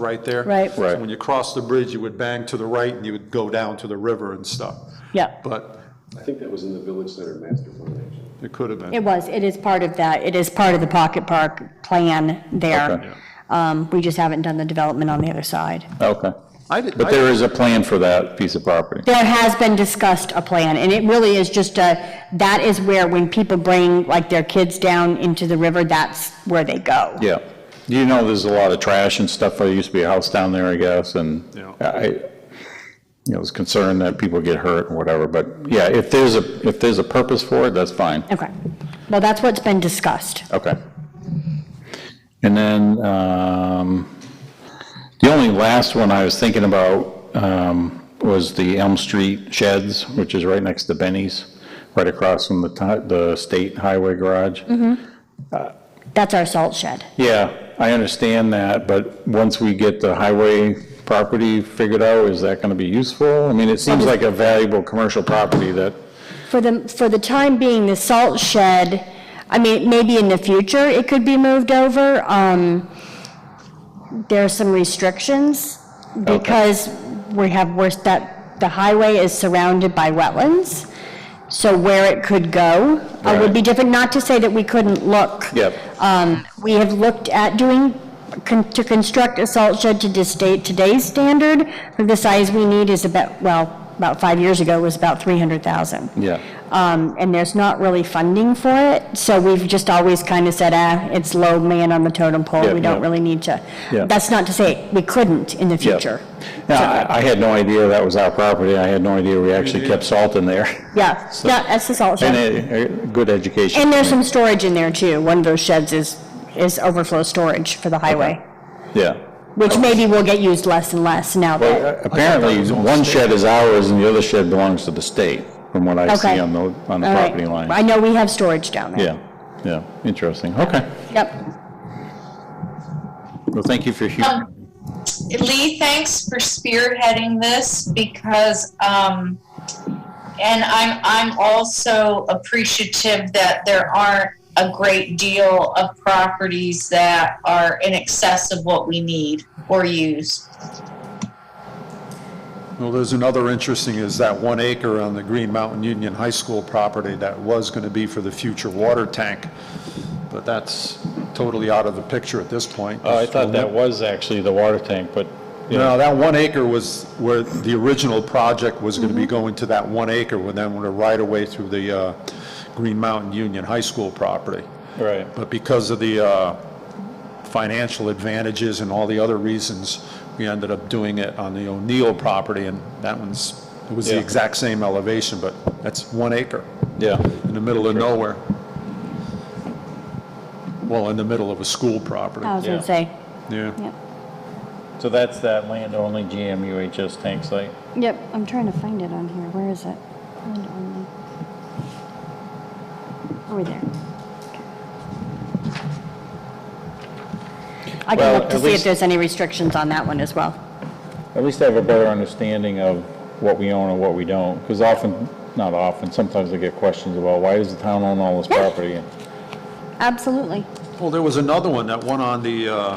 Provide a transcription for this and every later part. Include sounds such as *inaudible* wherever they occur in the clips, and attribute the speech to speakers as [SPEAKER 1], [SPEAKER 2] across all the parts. [SPEAKER 1] right there.
[SPEAKER 2] Right.
[SPEAKER 3] Right.
[SPEAKER 1] So When you cross the bridge, you would bang to the right and you would go down to the river and stuff.
[SPEAKER 2] Yeah,
[SPEAKER 1] But
[SPEAKER 4] I think that was in the Village Center master plan, actually.
[SPEAKER 1] it could have been.
[SPEAKER 2] it was, it is part of that, it is part of the Pocket Park plan
[SPEAKER 3] Okay.
[SPEAKER 2] there. Um, We just haven't done the development on the other side.
[SPEAKER 3] Okay.
[SPEAKER 1] I did-
[SPEAKER 3] But
[SPEAKER 1] I-
[SPEAKER 3] there is a plan for that piece of property.
[SPEAKER 2] There has been discussed a plan, and it really is just a, that is where, when people bring, like, their kids down into the river, that's where they go.
[SPEAKER 3] Yeah. You know, there's a lot of trash and stuff. There used to be a house down there, I guess, and
[SPEAKER 1] Yeah.
[SPEAKER 3] I, you know, was concerned that people get hurt and whatever, but yeah, if there's a, if there's a purpose for it, that's fine.
[SPEAKER 2] Okay, well, that's what's been discussed.
[SPEAKER 3] Okay. And then, um, the only last one I was thinking about, um, was the Elm Street Sheds, which is right next to Benny's, right across from the, ti- the state highway garage.
[SPEAKER 2] That's our salt shed.
[SPEAKER 3] Yeah, I understand that, but once we get the highway property figured out, is that gonna be useful? I mean, it seems like a valuable commercial property that,
[SPEAKER 2] For the, for the time being, the salt shed, I mean, maybe in the future it could be moved over. Um, There are some restrictions because we have, worse that, the highway is surrounded by wetlands. So where it could go uh, would be
[SPEAKER 3] Right.
[SPEAKER 2] different, not to say that we couldn't look.
[SPEAKER 3] Yep.
[SPEAKER 2] Um, We have looked at doing, con- to construct a salt shed to this state, today's standard for the size we need is about, well, about five years ago was about 300,000.
[SPEAKER 3] yeah,
[SPEAKER 2] Um, and there's not really funding for it, so we've just always kind of said, ah, it's low man on the totem pole,
[SPEAKER 3] Yeah,
[SPEAKER 2] we don't
[SPEAKER 3] yeah.
[SPEAKER 2] really need to.
[SPEAKER 3] Yeah.
[SPEAKER 2] That's not to say we couldn't in the future.
[SPEAKER 3] Now, I, I had no idea that was our property. I had no idea we actually kept salt in there. *laughs*
[SPEAKER 2] Yeah, yeah, that's the salt
[SPEAKER 3] And
[SPEAKER 2] shed.
[SPEAKER 3] a, a good education.
[SPEAKER 2] And there's some storage in there too, one of those sheds is, is overflow storage for the highway,
[SPEAKER 3] Yeah.
[SPEAKER 2] which maybe will get used less and less now that.
[SPEAKER 3] Well, apparently, one shed is ours and the other shed belongs to the state, from what I
[SPEAKER 2] Okay.
[SPEAKER 3] see on the, on the
[SPEAKER 2] All right.
[SPEAKER 3] property
[SPEAKER 2] I
[SPEAKER 3] line.
[SPEAKER 2] know we have storage down there.
[SPEAKER 3] Yeah, yeah, interesting, okay.
[SPEAKER 2] Yep,
[SPEAKER 3] Well, thank you for hearing.
[SPEAKER 5] Um, Lee, thanks for spearheading this because, um, and I'm, I'm also appreciative that there aren't a great deal of properties that are in excess of what we need or use.
[SPEAKER 1] Well, there's another interesting is that one acre on the Green Mountain Union High School property that was going to be for the future water tank, but that's totally out of the picture at this point.
[SPEAKER 3] Oh, I thought that was actually the water tank, but,
[SPEAKER 1] No, that one acre was where the original project was going to be
[SPEAKER 2] Mm-hmm.
[SPEAKER 1] going to that one acre, and then went a right-of-way through the uh, Green Mountain Union High School property.
[SPEAKER 3] right.
[SPEAKER 1] But because of the uh, financial advantages and all the other reasons, we ended up doing it on the O'Neill property, and that one's, it was the
[SPEAKER 3] Yeah.
[SPEAKER 1] exact same elevation, but that's one acre
[SPEAKER 3] Yeah,
[SPEAKER 1] in the middle of nowhere. Well, in the middle of a school property,
[SPEAKER 2] I was
[SPEAKER 3] Yeah.
[SPEAKER 2] gonna say,
[SPEAKER 1] yeah.
[SPEAKER 2] yep,
[SPEAKER 3] so that's that land-only GMUHS tank site.
[SPEAKER 2] yep, I'm trying to find it on here, where is it? Find it on the- Over there. I can
[SPEAKER 3] Well,
[SPEAKER 2] look to
[SPEAKER 3] at
[SPEAKER 2] see if
[SPEAKER 3] least-
[SPEAKER 2] there's any restrictions on that one as well.
[SPEAKER 3] At least I have a better understanding of what we own and what we don't, because often, not often, sometimes I get questions about, why does the town own all this
[SPEAKER 2] Yeah.
[SPEAKER 3] property?
[SPEAKER 2] Absolutely.
[SPEAKER 1] Well, there was another one, that one on the, uh,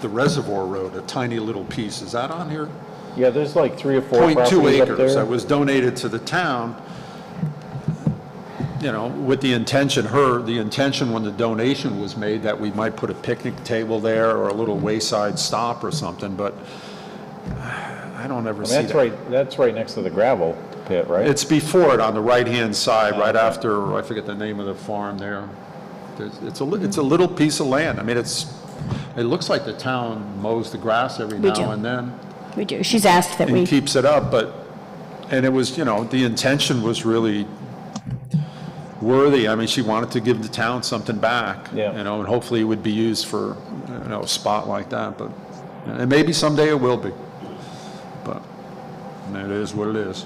[SPEAKER 1] the Reservoir Road, a tiny little piece, is that on here?
[SPEAKER 3] Yeah, there's like three or four
[SPEAKER 1] Point two
[SPEAKER 3] properties up
[SPEAKER 1] acres that
[SPEAKER 3] there.
[SPEAKER 1] was donated to the town, you know, with the intention, her, the intention when the donation was made, that we might put a picnic table there or a little wayside stop or something, but *sighs* I don't ever see
[SPEAKER 3] That's
[SPEAKER 1] that.
[SPEAKER 3] right, that's right next to the gravel pit, right?
[SPEAKER 1] It's before it, on the right-hand side, right after, I forget the name of the farm there. There's- It's a, li- it's a little piece of land. I mean, it's, it looks like the town mows the grass every
[SPEAKER 2] We do.
[SPEAKER 1] now and then
[SPEAKER 2] We do, she's asked that we.
[SPEAKER 1] and keeps it up, but, and it was, you know, the intention was really worthy. I mean, she wanted to give the town something back.
[SPEAKER 3] Yeah.
[SPEAKER 1] You know, and hopefully it would be used for, you know, a spot like that, but, and maybe someday it will be. But it is what it is.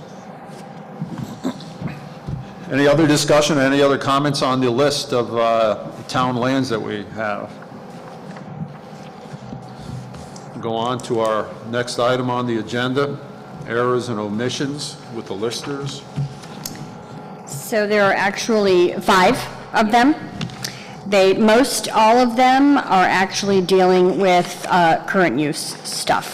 [SPEAKER 1] Any other discussion, any other comments on the list of uh, town lands that we have? Go on to our next item on the agenda, errors and omissions with the listers.
[SPEAKER 2] So there are actually five of them. They, most all of them are actually dealing with uh, current use stuff.